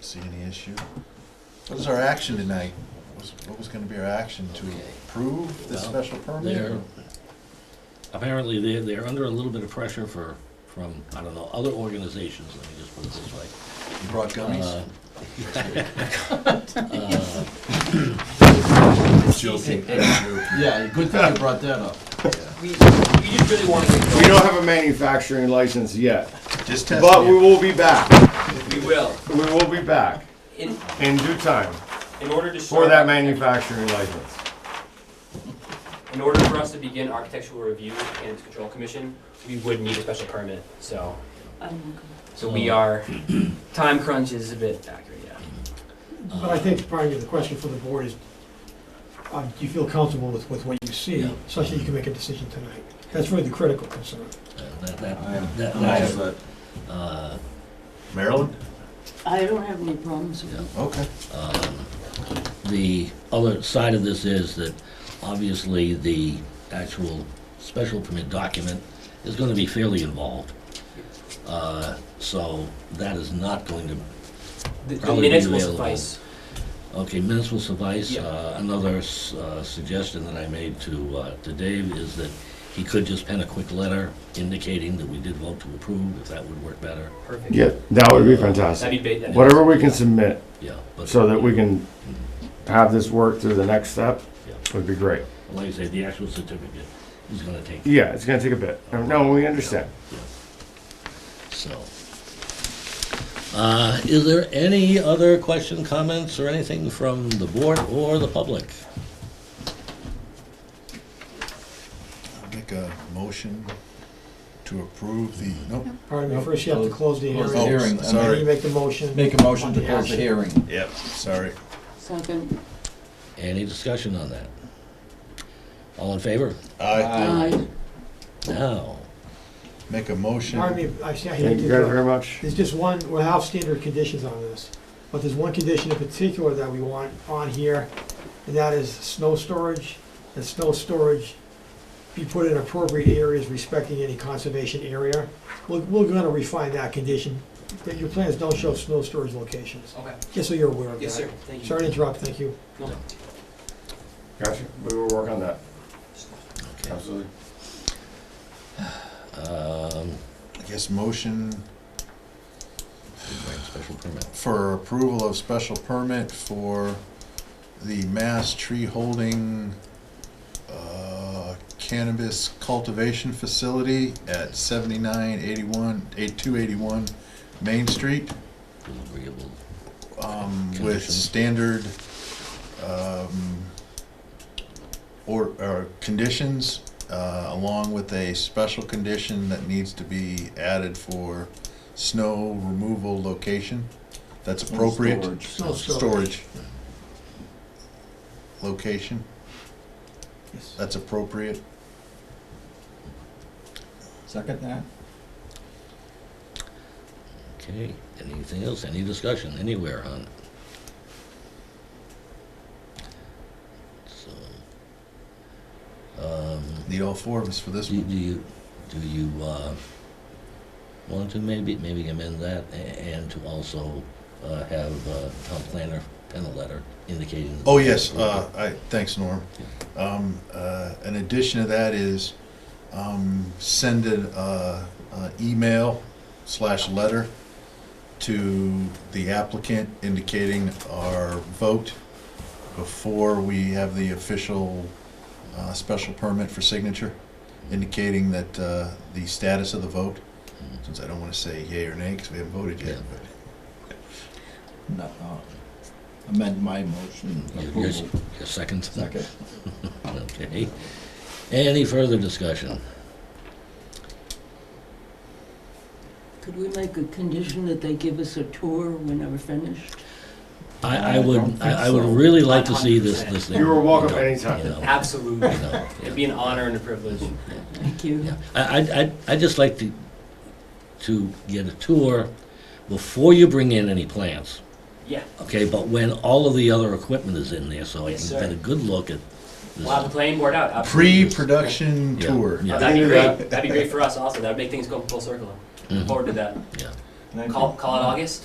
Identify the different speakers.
Speaker 1: See any issue? What is our action tonight? What was- What was gonna be our action to
Speaker 2: Okay.
Speaker 1: approve the
Speaker 2: Well,
Speaker 1: special
Speaker 2: They're,
Speaker 1: permit?
Speaker 2: apparently, they're, they're under a little bit of pressure for, from, I don't know, other organizations, let me just put it this way.
Speaker 1: You brought gummies?
Speaker 2: Uh,
Speaker 1: Joking.
Speaker 3: Yeah, good thing you brought that up.
Speaker 4: We, we just really wanted to
Speaker 5: We don't have a manufacturing license yet,
Speaker 1: Just testing
Speaker 5: but we
Speaker 1: you.
Speaker 5: will be back.
Speaker 4: We will.
Speaker 5: We will be back
Speaker 4: In,
Speaker 5: in due time
Speaker 4: in order to
Speaker 5: for
Speaker 4: start-
Speaker 5: that manufacturing license.
Speaker 4: In order for us to begin architectural review and its control commission, we would need a special permit, so. So we
Speaker 2: Oh.
Speaker 4: are, time crunch is a bit accurate, yeah.
Speaker 6: But I think probably the question for the board is, uh, do you feel comfortable with, with what you see,
Speaker 2: Yeah.
Speaker 6: such that you can make a decision tonight? That's really the critical concern.
Speaker 2: Uh, that- that-
Speaker 3: I am-
Speaker 2: that-
Speaker 3: I
Speaker 2: that's,
Speaker 3: have a-
Speaker 2: uh,
Speaker 1: Maryland?
Speaker 7: I don't have any problems with
Speaker 2: Yeah.
Speaker 7: it.
Speaker 1: Okay.
Speaker 2: The other side of this is that obviously the actual special permit document is gonna be fairly involved. Uh, So that is not going to
Speaker 4: The- The
Speaker 2: Probably be
Speaker 4: minutes will
Speaker 2: available.
Speaker 4: suffice.
Speaker 2: Okay, minutes will suffice.
Speaker 4: Yeah.
Speaker 2: Uh, Another s- uh, suggestion that I made to, uh, to Dave is that he could just pen a quick letter indicating that we did vote to approve, if that would work better,
Speaker 4: Perfect.
Speaker 5: Yeah, that would be
Speaker 4: That'd
Speaker 5: fantastic.
Speaker 4: be big.
Speaker 5: Whatever we can submit
Speaker 2: yeah. but-
Speaker 5: so that we can have this work through the next step
Speaker 2: Yeah.
Speaker 5: would be great.
Speaker 2: Like I said, the actual certificate is gonna take,
Speaker 5: Yeah, it's gonna take a bit. Uh, No, we understand.
Speaker 2: so. Uh, Is there any other question, comments, or anything from the board or the public?
Speaker 1: I'll Make a motion to approve the, nope.
Speaker 6: Pardon me, first you have to close the
Speaker 3: Close
Speaker 1: Oh,
Speaker 6: hearing.
Speaker 3: the hearing,
Speaker 6: And then you
Speaker 1: sorry.
Speaker 6: make the motion.
Speaker 3: Make a motion to close the hearing.
Speaker 1: Yep, sorry.
Speaker 7: Second,
Speaker 2: Any discussion on that? All in favor?
Speaker 1: I
Speaker 7: aye.
Speaker 2: Now,
Speaker 1: make a motion.
Speaker 6: Pardon me, I see- I hate
Speaker 5: Thank
Speaker 6: to
Speaker 5: you guys
Speaker 6: interrupt.
Speaker 5: very much.
Speaker 6: There's just one, we'll have standard conditions on this, but there's one condition in particular that we want on here, and that is snow storage, and snow storage be put in appropriate areas respecting any conservation area. We're, we're gonna refine that condition, but your plans don't show snow storage locations,
Speaker 4: Okay,
Speaker 6: just so you're aware of that.
Speaker 4: yes, sir, thank you.
Speaker 6: Sorry to interrupt, thank you.
Speaker 4: No.
Speaker 5: Gotcha. We will work on that.
Speaker 2: okay.
Speaker 5: Absolutely.
Speaker 2: um,
Speaker 1: I guess motion
Speaker 2: right, Special permit.
Speaker 1: for approval of special permit for the mass tree holding uh, cannabis cultivation facility at seventy-nine eighty-one, eight-two eighty-one Main Street,
Speaker 2: Agreeable.
Speaker 1: um, with
Speaker 2: Conditions.
Speaker 1: standard, um, or, or conditions, uh, along with a special condition that needs to be added for snow removal location. That's appropriate
Speaker 5: Storage.
Speaker 6: Snow
Speaker 1: storage location,
Speaker 6: Yes.
Speaker 1: that's appropriate.
Speaker 3: Second that?
Speaker 2: Okay, anything else, any discussion anywhere on it? So, um,
Speaker 1: Need all four of us for this
Speaker 2: do
Speaker 1: one.
Speaker 2: do you, do you, uh, want to maybe, maybe amend that a- and to also, uh, have, uh, town planner pen a letter indicating.
Speaker 1: Oh, yes, uh, I, thanks, Norm. Um, uh, an addition to that is, um, send an, uh, uh, email slash letter to the applicant indicating our vote before we have the official, uh, special permit for signature, indicating that, uh, the status of the vote,
Speaker 2: Mm-hmm.
Speaker 1: since I don't wanna say yay or nay, cause we haven't voted yet,
Speaker 2: Yeah.
Speaker 1: but.
Speaker 3: No. uh, Amend my motion
Speaker 2: Your,
Speaker 3: approval.
Speaker 2: your second?
Speaker 3: Second.
Speaker 2: Okay. Any further discussion?
Speaker 7: Could we make a condition that they give us a tour whenever finished?
Speaker 2: I, I
Speaker 3: I don't
Speaker 2: would,
Speaker 3: think
Speaker 2: I I would
Speaker 3: so.
Speaker 2: really like to see this,
Speaker 4: 100%.
Speaker 2: this thing.
Speaker 5: You are welcome
Speaker 2: you know,
Speaker 5: anytime.
Speaker 2: you know,
Speaker 4: Absolutely.
Speaker 2: you know,
Speaker 4: It'd be an honor and a privilege.
Speaker 7: Thank you.
Speaker 2: Yeah, I, I, I, I just like to, to get a tour before you bring in any plants,
Speaker 4: Yeah,
Speaker 2: okay? But when all of the other equipment is in there, so I can
Speaker 4: Yes, sir.
Speaker 2: get a good look at this.
Speaker 4: we'll have the planning board out, absolutely.
Speaker 1: Pre-production
Speaker 2: Yeah.
Speaker 1: tour.
Speaker 4: Oh,
Speaker 2: Yeah.
Speaker 4: That'd
Speaker 5: I
Speaker 4: be
Speaker 5: knew
Speaker 4: great, that'd be great for us also, that'd make things go full circle.
Speaker 2: Mhm.
Speaker 4: Forward to that.
Speaker 2: Yeah.
Speaker 3: Thank you.
Speaker 4: Call, call it August?